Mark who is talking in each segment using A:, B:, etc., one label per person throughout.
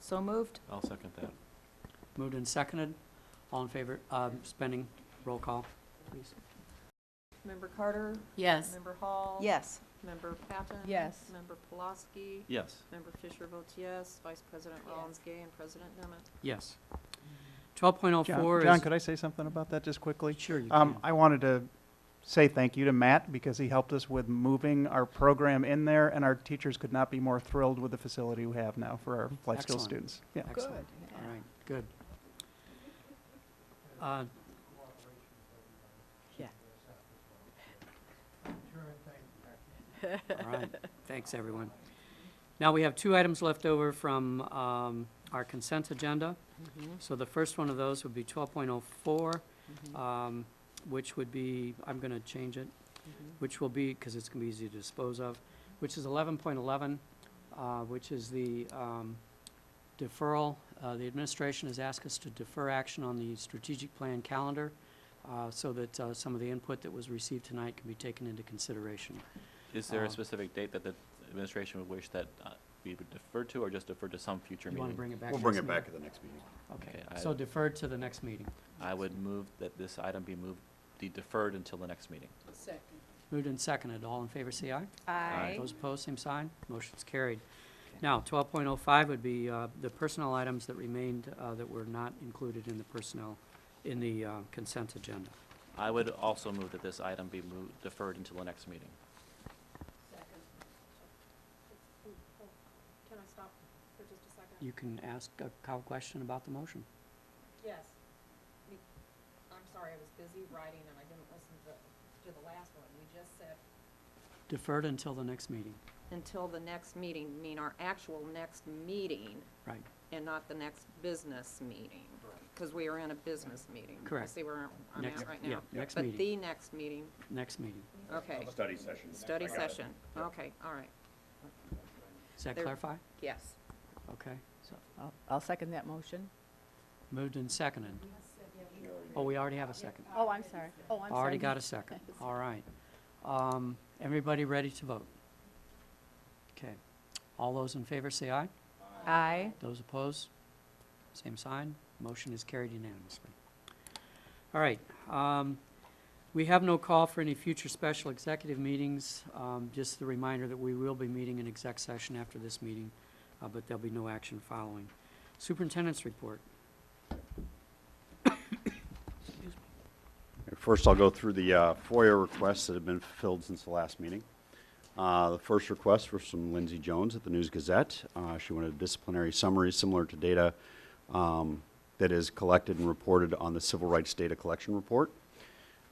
A: So moved.
B: I'll second that.
C: Moved and seconded. All in favor, um, spending, roll call, please.
D: Member Carter?
A: Yes.
D: Member Hall?
A: Yes.
D: Member Patton?
A: Yes.
D: Member Pulaski?
B: Yes.
D: Member Fisher votes yes. Vice President Rollins Gay and President Nemeth.
C: Yes. Twelve point oh four
E: John,
C: is.
E: John, could I say something about that just quickly?
C: Sure, you
E: Um,
C: can.
E: I wanted to say thank you to Matt because he helped us with moving our program in there and our teachers could not be more thrilled with the facility we have now for our life
C: Excellent.
E: skills students. Yeah.
C: Excellent. All right, good. Uh, All right, thanks, everyone. Now, we have two items left over from um, our consent agenda.
A: Mm-hmm,
C: So the first one of those would be
A: mm-hmm,
C: 12.04, um, which would be, I'm going to change it,
A: mm-hmm.
C: which will be, because it's going to be easy to dispose of, which is 11.11, uh, which is the um, deferral. Uh, The administration has asked us to defer action on the strategic plan calendar uh, so that uh, some of the input that was received tonight can be taken into consideration.
B: Is there
C: Uh,
B: a specific date that the administration would wish that uh, we would defer to, or just defer to some future
C: You want
B: meeting?
C: to bring it back?
F: We'll
C: to
F: bring
C: this
F: it
C: meeting?
F: back at the next meeting.
C: Okay,
B: Okay,
C: so
B: I-
C: deferred to the next meeting.
B: I would move that this item be moved, be deferred until the next meeting.
A: Second.
C: Moved and seconded, all in favor, say aye.
B: Aye.
C: Those opposed, same sign, motion's carried. Now, twelve point oh five would be uh, the personnel items that remained, uh, that were not included in the personnel, in the uh, consent agenda.
B: I would also move that this item be moved, deferred until the next meeting.
D: Can I stop for just a second?
C: You can ask a cow question about the motion.
D: Yes. We- I'm sorry, I was busy writing and I didn't listen to, to the last one. We just said.
C: Deferred until the next meeting,
D: Until the next meeting, mean our actual next meeting
C: right,
D: and not the next business meeting. Because we are in a business meeting.
C: Correct.
D: I see where I'm
C: Next-
D: at right
C: yeah,
D: now.
C: next
D: But
C: meeting.
D: the next meeting,
C: next meeting.
D: okay.
F: Study session.
D: Study session, okay, all right,
C: Does that
D: There-
C: clarify?
D: yes.
C: Okay,
A: So I'll- I'll second that motion.
C: moved and seconded. Oh, we already have a second.
A: Oh, I'm sorry. Oh, I'm sorry.
C: Already got a second, all right. Um, Everybody ready to vote? Okay, all those in favor say aye.
A: Aye.
C: Those opposed, same sign. Motion is carried unanimously. All right, um, we have no call for any future special executive meetings. Um, Just the reminder that we will be meeting in exec session after this meeting, uh, but there'll be no action following. Superintendent's report.
F: First, I'll go through the uh, FOIA requests that have been fulfilled since the last meeting. Uh, The first request was from Lindsay Jones at the News Gazette. Uh, She wanted a disciplinary summary similar to data um, that is collected and reported on the Civil Rights Data Collection Report.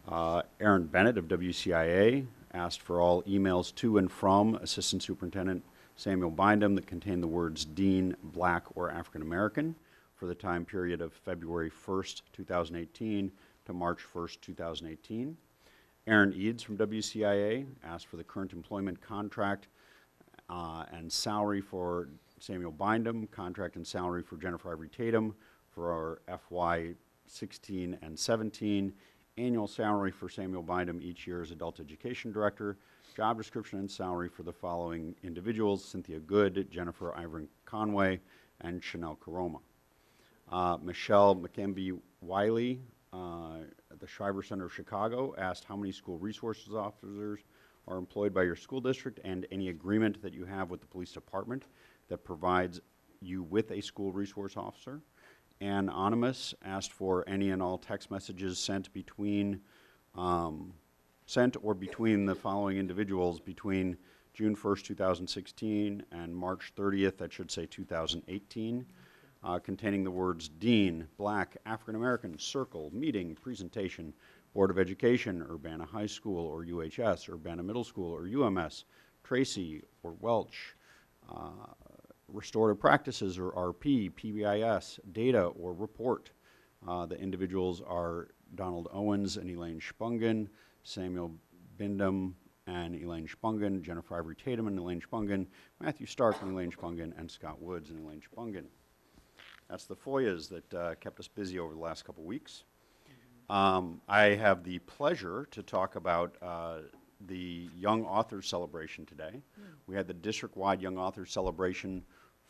F: Uh, Aaron Bennett of WCIA asked for all emails to and from Assistant Superintendent Samuel Bindum that contain the words Dean, Black, or African American for the time period of February 1st, 2018 to March 1st, 2018. Aaron Eads from WCIA asked for the current employment contract uh, and salary for Samuel Bindum, contract and salary for Jennifer Ivory Tatum for our FY 16 and 17, annual salary for Samuel Bindum each year as Adult Education Director, job description and salary for the following individuals, Cynthia Good, Jennifer Ivory Conway, and Chanel Caroma. Uh, Michelle McKenby Wiley uh, at the Shriver Center of Chicago asked how many school resources officers are employed by your school district and any agreement that you have with the police department that provides you with a school resource officer. And Anonymous asked for any and all text messages sent between um, sent or between the following individuals between June 1st, 2016 and March 30th, that should say 2018, uh, containing the words Dean, Black, African American, Circle, Meeting, Presentation, Board of Education, Urbana High School or UHS, Urbana Middle School or UMS, Tracy or Welch, uh, Restorative Practices or RP, PBIS, Data or Report. Uh, The individuals are Donald Owens and Elaine Spungen, Samuel Bindum and Elaine Spungen, Jennifer Ivory Tatum and Elaine Spungen, Matthew Stark and Elaine Spungen, and Scott Woods and Elaine Spungen. That's the FOIAs that uh, kept us busy over the last couple weeks. Um, I have the pleasure to talk about uh, the Young Authors Celebration today. We had the district-wide Young Authors Celebration